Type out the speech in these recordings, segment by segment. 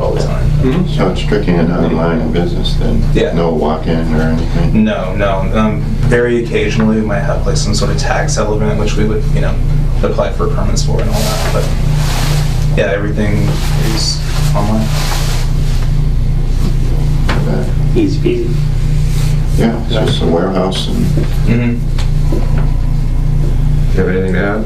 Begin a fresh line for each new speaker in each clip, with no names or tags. all the time.
Mhm.
So it's strictly an online business then?
Yeah.
No walk-in or anything?
No, no. Um, very occasionally, we might have like some sort of tax element, which we would, you know, apply for permits for and all that. But yeah, everything is online.
Uh,
Easy peasy.
Yeah, it's just a warehouse and
Mm-hmm.
You have anything to add?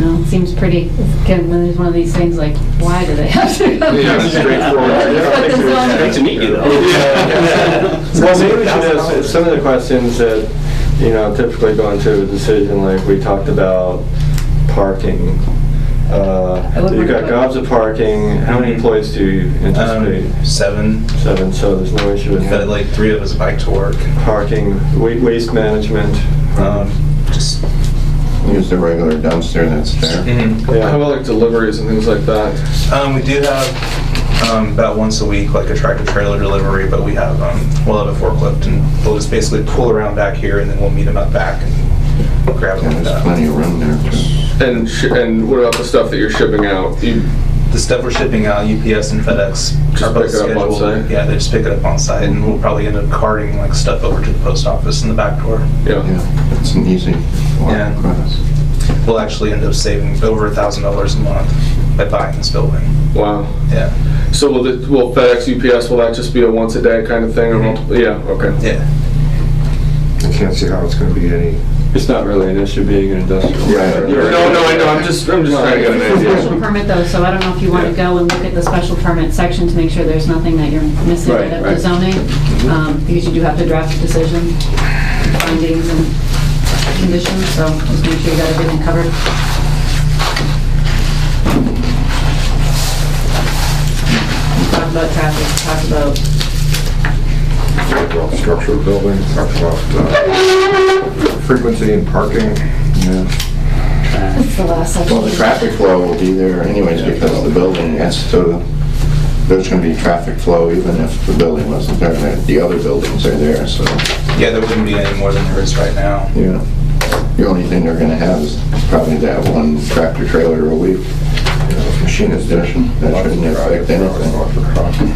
No, it seems pretty, it's again, one of these- one of these things like, why do they have to?
Yeah, straightforward.
That's what the zoning-
Great to meet you, though.
Yeah. Well, maybe we should ask
$1,000.
some of the questions that, you know, typically go into a decision, like we talked about parking. Uh,
I would
You've got
worry about-
gobs of parking, how many
Mhm.
employees do you anticipate?
Um, seven.
Seven, so there's no issue with
Got
that.
like three of us bike to work.
Parking, wa- waste management.
Um, just
use the regular dumpster that's there.
mhm.
Yeah.
How about like deliveries and things like that?
Um, we do have um, about once a week, like a tractor trailer delivery, but we have um, we'll have a forklift and we'll just basically pull around back here and then we'll meet them up back and grab them.
Yeah,
and,
there's
uh,
plenty of room there. too.
And sh- and what about the stuff that you're shipping out? You,
The stuff we're shipping uh, out, UPS and FedEx,
Just
are both
pick it up on
scheduled.
site?
Yeah, they just pick it up on site, and we'll probably end up carting like stuff over to the post office in the back door.
yeah.
Yeah, it's an easy walk
Yeah.
across.
We'll actually end up saving over a thousand dollars a month by buying this building.
Wow.
Yeah,
So will, the, will FedEx, UPS, will that just be a once a day kind of thing? Or
Mhm.
multiple? Yeah. Okay.
yeah.
I can't see how it's gonna be any,
It's not really an issue being an industrial.
Right.
No,
You're-
no, I know. I'm just I'm just trying to get an
It's a
idea.
special permit though, so I don't know if you want to go and look at the special permit section to make sure there's nothing that you're missing
Right,
right up to
right.
zoning.
Mm-hmm.
um, Because you do have to draft a decision, findings and conditions, so just make sure you got everything covered. Talk about traffic, talk about
about structure of building, talked about uh, frequency and parking. Yeah.
That's the last section.
Well, the traffic flow will be there anyways because the building has to, there's gonna be traffic flow even if the building wasn't there. The- The other buildings are there, so,
Yeah, there wouldn't be any more than there is right now.
yeah. The only thing they're gonna have is probably that one tractor trailer a week. Machine is there, that shouldn't affect anything.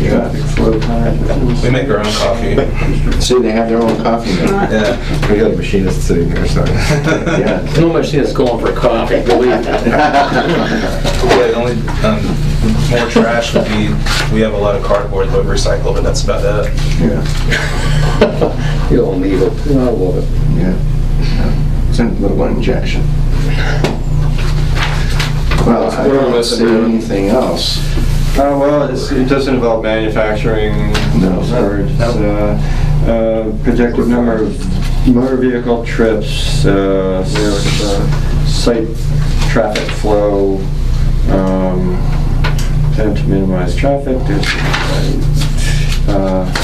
Yeah.
We make our own coffee.
See, they have their own coffee maker.
Yeah.
We had a machinist sitting here, so.
Yeah.
No much thing that's going for coffee, believe me.
Yeah, the only, um, more trash would be, we have a lot of cardboard that we recycle, but that's about it.
Yeah,
You don't need it. I love it.
yeah. It's a little injection. Well, I
What am I
don't
missing,
see
Adam?
anything else.
Uh, well, it's, it doesn't involve manufacturing,
No.
or it's, uh, uh, projected number of motor vehicle trips, uh, s- site traffic flow, um, attempt to minimize traffic, there's, uh,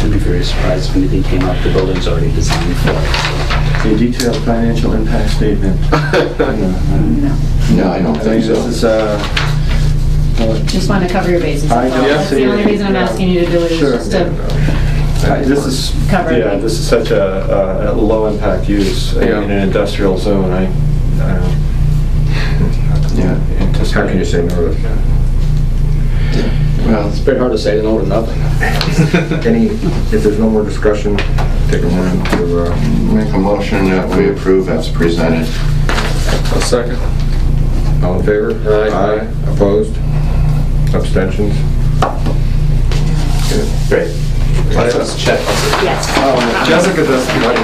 I'd be very surprised if anything came up. The building's already designed for it.
a detailed financial impact statement. No,
No.
No, I don't
I think
think
this is,
so.
uh, uh,
Just want to cover your bases.
I
that's all.
don't
That's
see
the only
it.
reason I'm asking you to do it, is
Sure.
just to,
Uh, This is,
Cover.
yeah, this is such a, a- a low-impact use uh,
Yeah.
in an industrial zone, I, uh, I don't
Yeah.
anticipate.
How can you say no to
Well,
It's very hard to say no to nothing.
any, if there's no more discussion, take a moment to, uh,
make a motion that we approve as presented.
A second.
all in favor?
Aye.
Opposed? Abstentions?
Great.
But it was checked.
Yes,
Oh,
Um,
Jessica does the
I was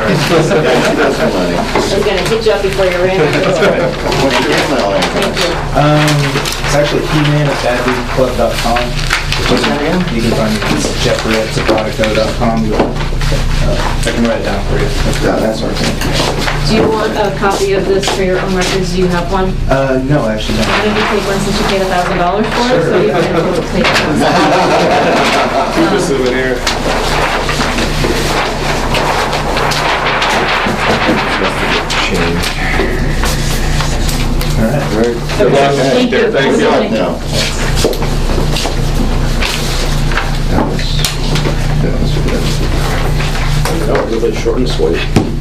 gonna hit you up before you ran. Thank
What's your email address?
you.
Um, it's actually He-Man at badbeatclub.com. You can find me, it's Jeffrey at Sabratico.com. Uh, I can write it down for you.
No, that's okay.
Do you want a copy of this for your own records? Do you have one?
Uh, no, actually,
Why don't you take one since you paid a thousand dollars for it? So you can take
Keep a
it. Um,
souvenir. Good luck.
Thank you.
Thank you.
Thank
No. That was, that was good.
No, really short and sweet.